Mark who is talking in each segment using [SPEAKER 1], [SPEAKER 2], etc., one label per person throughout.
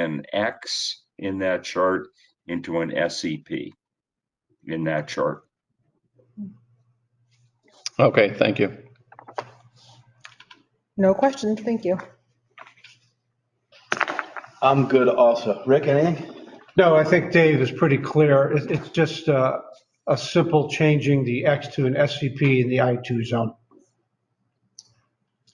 [SPEAKER 1] an X in that chart into an SEP in that chart.
[SPEAKER 2] Okay, thank you.
[SPEAKER 3] No questions, thank you.
[SPEAKER 4] I'm good also. Rick, anything?
[SPEAKER 5] No, I think Dave is pretty clear. It- It's just uh, a simple changing the X to an SCP in the I2 zone.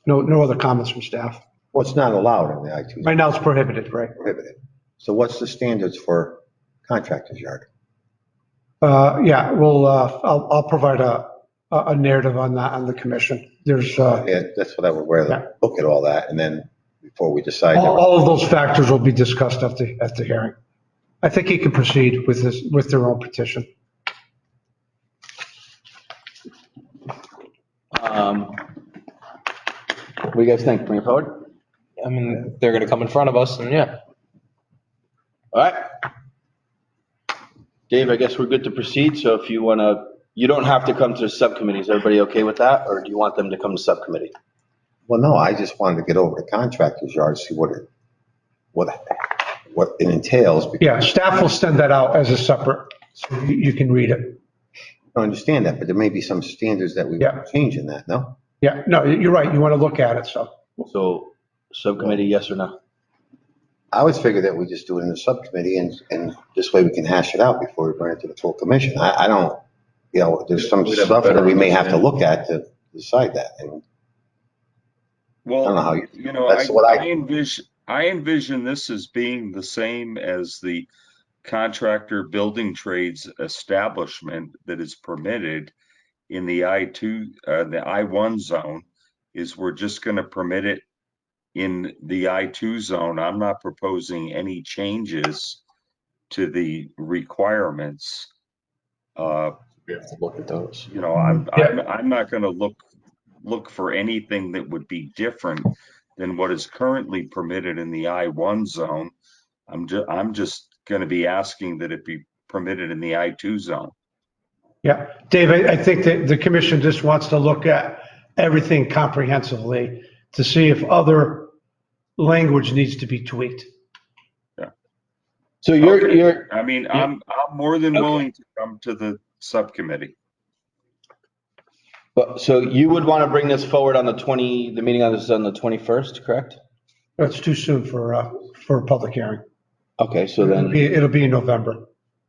[SPEAKER 5] No, no other comments from staff.
[SPEAKER 6] Well, it's not allowed in the I-2,
[SPEAKER 5] Right now it's prohibited, right?
[SPEAKER 6] prohibited. So what's the standards for contractor's yard?
[SPEAKER 5] Uh, Yeah, well, uh, I'll, I'll provide a, a a narrative on that on the commission. There's, uh,
[SPEAKER 6] Yeah, that's what I would wear,
[SPEAKER 5] Yeah.
[SPEAKER 6] the look at all that, and then before we decide.
[SPEAKER 5] all,
[SPEAKER 6] that-
[SPEAKER 5] all of those factors will be discussed at the, at the hearing. I think he can proceed with this, with their own petition.
[SPEAKER 4] Um, What do you guys think? Bring it forward?
[SPEAKER 7] I mean, they're gonna come in front of us and yeah.
[SPEAKER 4] All right. Dave, I guess we're good to proceed. So if you want to, you don't have to come to the subcommittee. Is everybody okay with that? Or do you want them to come to subcommittee?
[SPEAKER 6] Well, no, I just wanted to get over to contractor's yard, see what it, what, what it entails. because
[SPEAKER 5] Yeah, staff will send that out as a separate, so you you can read it.
[SPEAKER 6] I understand that, but there may be some standards that we
[SPEAKER 5] Yeah.
[SPEAKER 6] change in that, no?
[SPEAKER 5] Yeah, no, you're right, you want to look at it, so.
[SPEAKER 4] So subcommittee, yes or no?
[SPEAKER 6] I would figure that we just do it in the subcommittee and, and this way we can hash it out before we bring it to the full commission. I, I don't, you know, there's some
[SPEAKER 1] We'd have a
[SPEAKER 6] stuff that
[SPEAKER 1] better
[SPEAKER 6] we may have to
[SPEAKER 1] understanding.
[SPEAKER 6] look at to decide that. And I don't know how
[SPEAKER 1] Well,
[SPEAKER 6] you-
[SPEAKER 1] you know, I,
[SPEAKER 6] Uh-huh. that's what I-
[SPEAKER 1] I envision, I envision this as being the same as the contractor building trades establishment that is permitted in the I two, uh, the I one zone, is we're just gonna permit it in the I two zone. I'm not proposing any changes to the requirements. Uh,
[SPEAKER 7] We have to look at those.
[SPEAKER 1] you know, I'm,
[SPEAKER 5] Yeah.
[SPEAKER 1] I'm, I'm not gonna look, look for anything that would be different than what is currently permitted in the I one zone. I'm ju- I'm just gonna be asking that it be permitted in the I two zone.
[SPEAKER 5] Yeah, Dave, I I think that the commission just wants to look at everything comprehensively to see if other language needs to be tweaked.
[SPEAKER 4] So you're,
[SPEAKER 1] Okay.
[SPEAKER 4] you're,
[SPEAKER 1] I mean, I'm, I'm more than willing to come to the subcommittee.
[SPEAKER 4] but, so you would want to bring this forward on the 20, the meeting on this is on the 21st, correct?
[SPEAKER 5] It's too soon for, uh, for a public hearing.
[SPEAKER 4] Okay, so
[SPEAKER 5] It'll
[SPEAKER 4] then,
[SPEAKER 5] be- it'll be in November.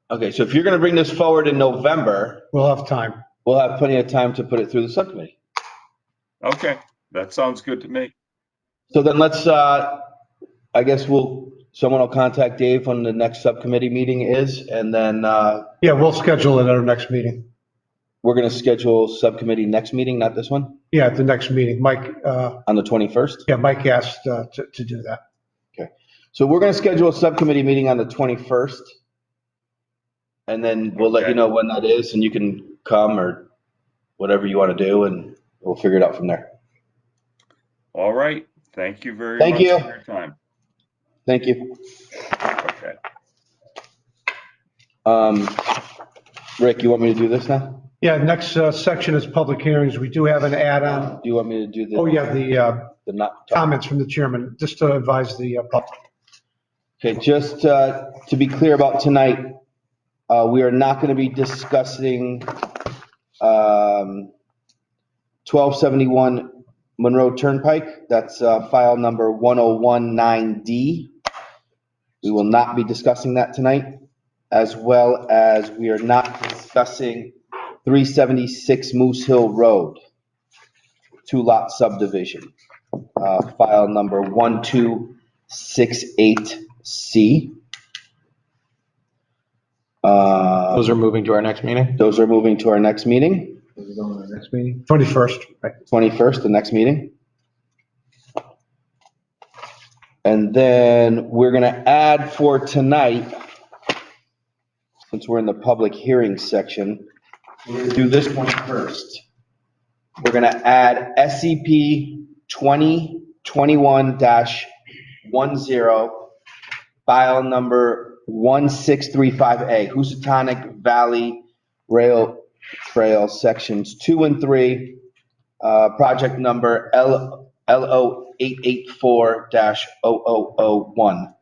[SPEAKER 4] okay, so if you're going to bring this forward in November,
[SPEAKER 5] We'll have time.
[SPEAKER 4] we'll have plenty of time to put it through the subcommittee.
[SPEAKER 1] Okay, that sounds good to me.
[SPEAKER 4] So then let's, uh, I guess we'll, someone will contact Dave when the next subcommittee meeting is, and then, uh,
[SPEAKER 5] Yeah, we'll schedule it at our next meeting.
[SPEAKER 4] we're gonna schedule subcommittee next meeting, not this one,
[SPEAKER 5] Yeah, at the next meeting. Mike, uh,
[SPEAKER 4] on the 21st.
[SPEAKER 5] yeah, Mike asked uh, to to do that.
[SPEAKER 4] So we're gonna schedule a subcommittee meeting on the 21st. And then we'll let you know when that is, and you can come or whatever you wanna do, and we'll figure it out from there.
[SPEAKER 1] All right, thank you very much
[SPEAKER 4] Thank
[SPEAKER 1] for
[SPEAKER 4] you.
[SPEAKER 1] your time.
[SPEAKER 4] Thank you.
[SPEAKER 1] Okay,
[SPEAKER 4] Um, Rick, you want me to do this now?
[SPEAKER 5] Yeah, next uh, section is public hearings. We do have an add-on.
[SPEAKER 4] Do you want me to do the?
[SPEAKER 5] Oh, yeah, the uh,
[SPEAKER 4] The not.
[SPEAKER 5] comments from the chairman, just to advise the uh, public.
[SPEAKER 4] Okay, just uh, to be clear about tonight, uh, we are not going to be discussing um, 1271 Monroe Turnpike. That's uh, file number 1019D. We will not be discussing that tonight, as well as we are not discussing 376 Moose Hill Road, two-lot subdivision, uh, file number 12 68C. Uh,
[SPEAKER 7] Those are moving to our next meeting?
[SPEAKER 4] Those are moving to our next meeting,
[SPEAKER 5] Next meeting, 21st, right.
[SPEAKER 4] 21st, the next meeting. And then we're going to add for tonight, since we're in the public hearing section, we're going to do this one first. We're going to add E SCP 2021-10 file number 1635A, Housatonic Valley Rail Trail, Sections 2 and 3, uh, project number L- LO884-0001.